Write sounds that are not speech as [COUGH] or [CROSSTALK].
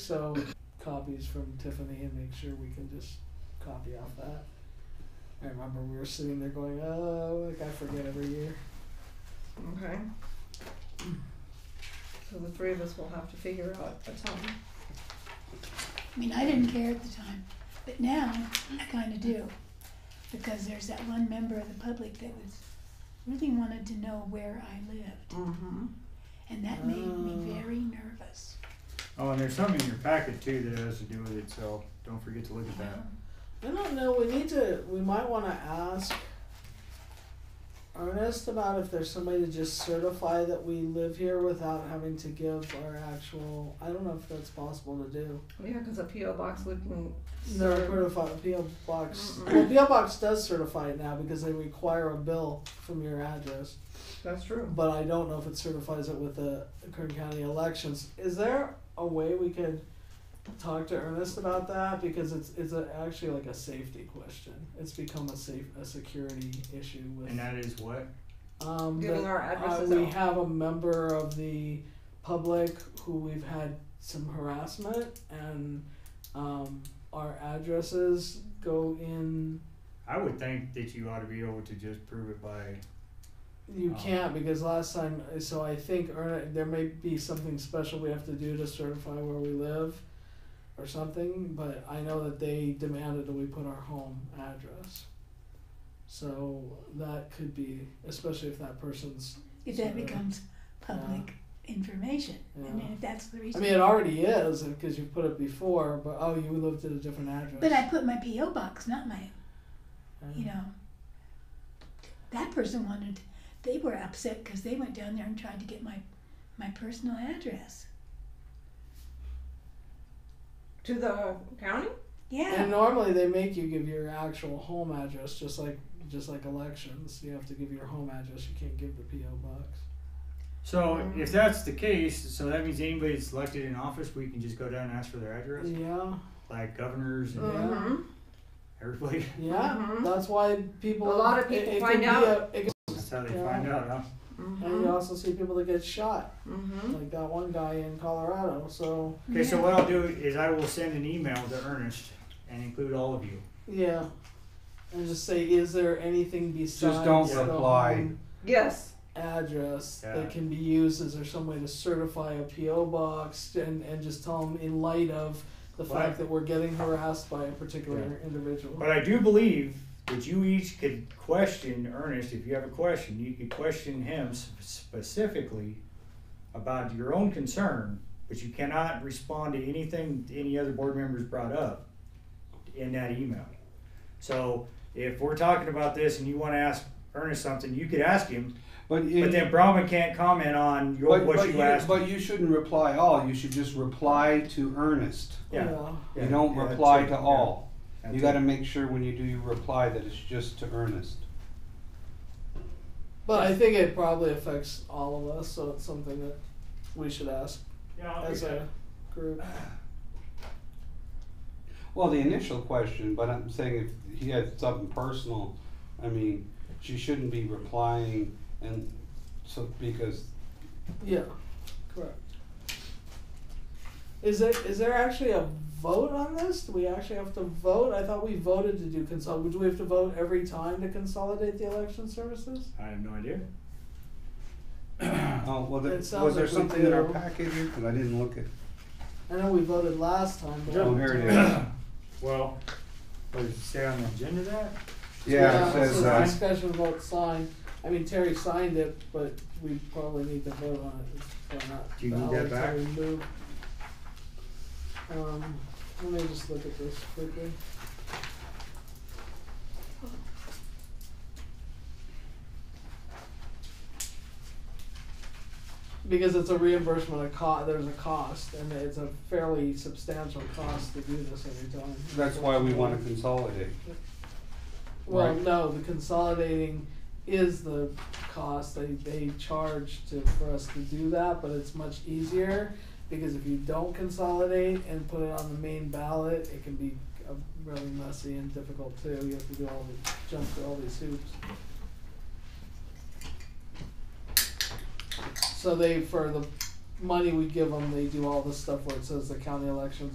so copies from Tiffany and make sure we can just copy off that. I remember we were sitting there going, oh, like I forget every year. Okay. So the three of us will have to figure out a time. I mean, I didn't care at the time, but now I kind of do. Because there's that one member of the public that was really wanted to know where I lived, Mm-hmm. and that made me Oh. very nervous. Oh, and there's something in your packet too that has to do with it, so don't forget to look at that. I don't know. We need to. We might want to ask Ernest about if there's somebody to just certify that we live here without having to give our actual. I don't know if that's possible to do. Yeah, because a PO box wouldn't. No, serve- certify PO box. Well, Mm-mm. PO box does certify it now because they require a bill from your address. That's true. But I don't know if it certifies it with the Kern County elections. Is there a way we could talk to Ernest about that because it's it's a, actually like a safety question. It's become a safe a security issue with And that is what? um Giving that, our uh, addresses we out. have a member of the public who we've had some harassment and um, our addresses go in. I would think that you ought to be able to just prove it by, You Oh. can't because last time. So I think Erna, there may be something special we have to do to certify where we live, or something. But I know that they demanded that we put our home address. So that could be, especially if that person's. If that Sure. becomes public information, I mean, Yeah. if that's the I reason. mean, it already is because you put it before. But oh, you lived at a different address. but I put my PO box, not my Yeah. you know, that person wanted, they were upset because they went down there and tried to get my, my personal address. To the county? Yeah. And normally they make you give your actual home address, just like just like elections. You have to give your home address. You can't give the PO box. so if that's the case, so that means anybody that's elected in office, we can just go down and ask for their address? Yeah, Like governors and Uh, Mm-hmm. everybody, [LAUGHS] yeah. Mhm. That's why people. A lot of it- people it find could be out. a- it could- that's how they Yeah. find out, huh? and Mm-hmm. you also see people that get shot, Mm-hmm. like that one guy in Colorado. So Okay, so Yeah. what I'll do is I will send an email to Ernest and include all of you. yeah, and just say, is there anything besides Just don't the reply. home Yes. address Yeah. that can be used? Is there some way to certify a PO box and and just tell them in light of the Well, fact that we're getting harassed by a particular individual? But I do believe that you each could question Ernest, if you have a question, you could question him sp- specifically about your own concern, but you cannot respond to anything any other board members brought up in that email. So if we're talking about this and you wanna ask Ernest something, you could ask him, But, it, but then Brahman can't comment on your, but- what but you asked. But you shouldn't reply all. You should just reply to Ernest. yeah. you don't Yeah, reply that's to it. all. Yeah, that's you it. got to make sure when you do your reply that it's just to Ernest. But I think it probably affects all of us, so it's something that we should ask Yeah, I'll as do that. a group. Well, the initial question, but I'm saying if he had something personal, I mean, she shouldn't be replying and so because Yeah, correct. Is there is there actually a vote on this? Do we actually have to vote? I thought we voted to do consolidate. Do we have to vote every time to consolidate the election services? I have no idea. oh well, there, It was sounds there like we something in our do. packet here? 'Cause I didn't look at. I know we voted last time. But Oh, here it is. Well, what does it say on the agenda that? Yeah, it so says the uh, discussion vote signed. I mean Terry signed it, but we probably need to vote on it. It's probably not Do you need that valid to back? remove. Um, let me just look at this quickly. Because it's a reimbursement of cost, there's a cost, and it's a fairly substantial cost to do this every time. that's why we want to consolidate. Well, Right. no, the consolidating is the cost they, they charge to, for us to do that, but it's much easier. Because if you don't consolidate and put it on the main ballot, it can be uh, really messy and difficult too, you have to do all the, jump through all these hoops. So they, for the money we give them, they do all this stuff where it says the county elections